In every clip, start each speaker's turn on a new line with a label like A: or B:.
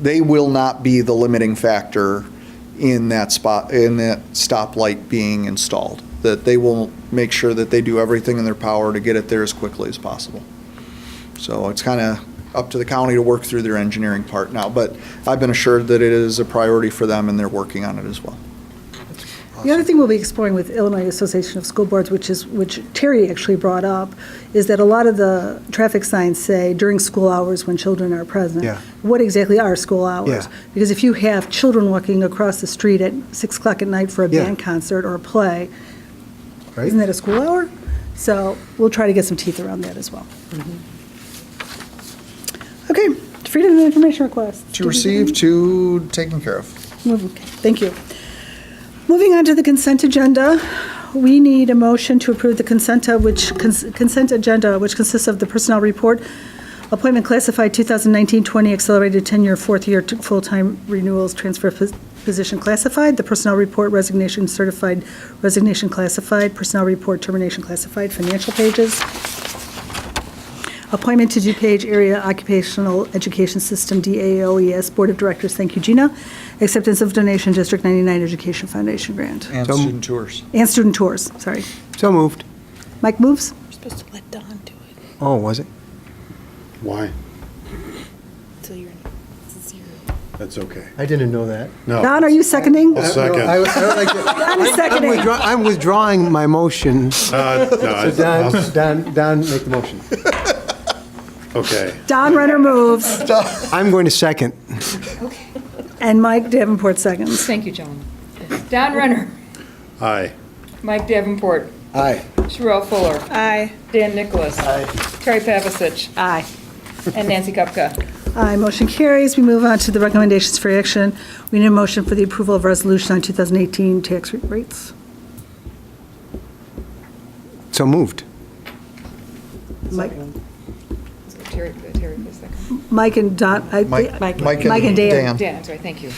A: they will not be the limiting factor in that spot, in that stoplight being installed. That they will make sure that they do everything in their power to get it there as quickly as possible. So it's kind of up to the county to work through their engineering part now, but I've been assured that it is a priority for them and they're working on it as well.
B: The other thing we'll be exploring with Illinois Association of School Boards, which is, which Terry actually brought up, is that a lot of the traffic signs say during school hours when children are present.
C: Yeah.
B: What exactly are school hours?
C: Yeah.
B: Because if you have children walking across the street at 6 o'clock at night for a
C: Yeah.
B: band concert or a play,
C: right?
B: isn't that a school hour? So we'll try to get some teeth around that as well.
C: Mm-hmm.
B: Okay, freedom of information request.
A: To receive, to taken care of.
B: Move- okay, Thank you. Moving on to the consent agenda, we need a motion to approve the consent, uh, which, cons- consent agenda, which consists of the personnel report, appointment classified 2019-20 accelerated tenure, fourth year, t- full-time renewals, transfer pos- position classified, the personnel report resignation certified, resignation classified, personnel report termination classified, financial pages, appointment to DuPage Area Occupational Education System, DAOES E Board of Directors, thank you, Gina, acceptance of donation, District 99 Education Foundation grant,
A: And
C: So-
A: student tours.
B: and student tours, sorry.
C: So moved.
B: Mike moves?
D: We're supposed to let Don do it
C: Oh, was it?
E: Why?
D: until you're, since you're.
E: That's okay.
C: I didn't know that.
E: No.
B: Don, are you seconding?
E: Oh. I'll
C: No, I- I
E: second. Uh,
C: don't like to-
B: Don is
C: I'm
B: seconding.
C: withdraw- I'm withdrawing my motion. So
E: Uh, no,
C: Don,
E: I'll-
C: Don, Don, make the motion.
E: Okay.
B: Don Renner moves,
C: I'm going to second.
B: and Mike Davenport seconds.
F: Thank you, gentlemen. Don Renner,
E: Aye.
F: Mike Davenport,
C: Aye.
F: Sherelle Fuller,
B: Aye.
F: Dan Nicholas. Terry Pavasich,
B: Aye.
F: and Nancy Kupka.
B: Aye, motion carries. We move on to the recommendations for action. We need a motion for the approval of resolution on 2018 tax rates.
C: So moved.
B: Mike,
F: So Terry, Terry, please second.
B: Mike and Don, I-
A: Mike- Mike and
B: Mike and Dan.
F: Dan, that's right, thank you.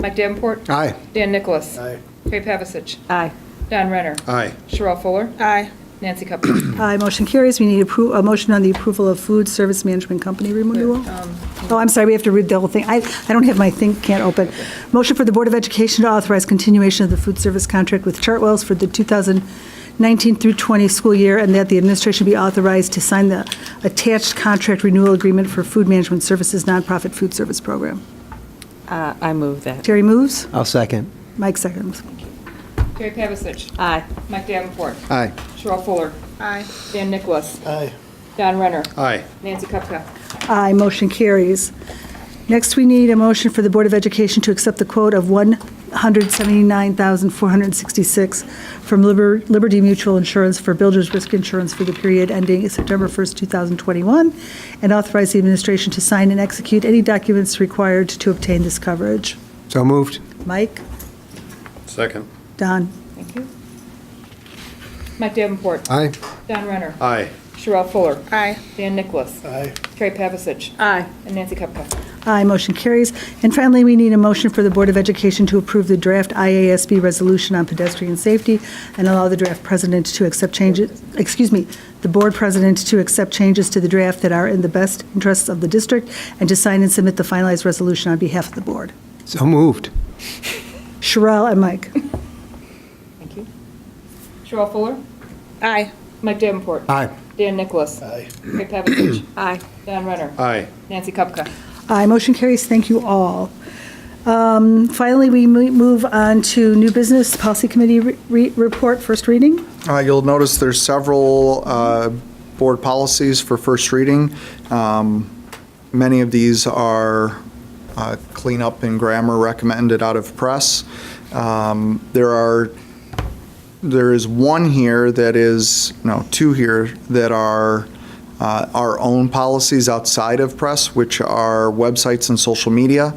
F: Mike Davenport.
C: Aye.
F: Dan Nicholas. Terry Pavasich,
B: Aye.
F: Don Renner,
E: Aye.
F: Sherelle Fuller,
D: Aye.
F: Nancy Kupka.
B: Aye, Uh, motion carries. We need appro- a motion on the approval of food service management company renewal. Oh, I'm sorry, we have to read the whole thing. I I don't have my thing, can't open. Motion for the Board of Education to authorize continuation of the food service contract with Chartwells for the 2019 through 20 school year, and that the administration be authorized to sign the attached contract renewal agreement for food management services nonprofit food service program.
G: Uh, I move that.
B: Terry moves,
C: I'll second.
B: Mike seconds.
F: Terry Pavasich,
G: Aye.
F: Mike Davenport,
C: Aye.
F: Sherelle Fuller,
D: Aye.
F: Dan Nicholas,
C: Aye.
F: Don Renner,
E: Aye.
F: Nancy Kupka.
B: Aye, motion carries. Next, we need a motion for the Board of Education to accept the quote of $179,466 from Liber- Liberty Mutual Insurance for Builders Risk Insurance for the period ending September 1st, 2021, and authorize the administration to sign and execute any documents required to obtain this coverage.
C: So moved.
B: Mike?
E: Second.
B: Don?
F: Thank you. Mike Davenport,
C: Aye.
F: Don Renner,
E: Aye.
F: Sherelle Fuller,
D: Aye.
F: Dan Nicholas,
E: Aye.
F: Terry Pavasich,
G: Aye.
F: and Nancy Kupka.
B: Aye, motion carries. And finally, we need a motion for the Board of Education to approve the draft IASB resolution on pedestrian safety and allow the draft president to accept changes, excuse me, the board president to accept changes to the draft that are in the best interests of the district and to sign and submit the finalized resolution on behalf of the board.
C: So moved.
B: Sherrell and Mike.
F: Thank you. Sherelle Fuller,
D: Aye.
F: Mike Davenport,
C: Aye.
F: Dan Nicholas, Terry Pavasich,
G: Aye.
F: Don Renner,
E: Aye.
F: Nancy Kupka.
B: Aye, motion carries. Thank you all. Um, Finally, we mo- move on to new business, policy committee re- re- report, first reading.
A: Uh, You'll notice there's several uh, board policies for first reading. Um, Many of these are uh, cleanup and grammar recommended out of press. Um, There are, there is one here that is, no, two here that are uh, our own policies outside of press, which are websites and social media,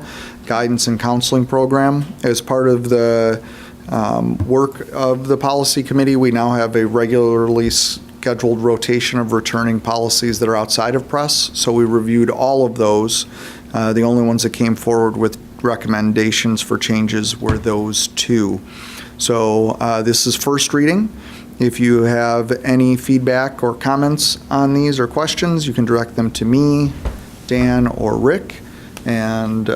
A: guidance and counseling program. As part of the um, work of the policy committee, we now have a regularly scheduled rotation of returning policies that are outside of press. So we reviewed all of those. Uh, The only ones that came forward with recommendations for changes were those two. So uh, this is first reading. If you have any feedback or comments on these or questions, you can direct them to me, Dan, or Rick. And uh,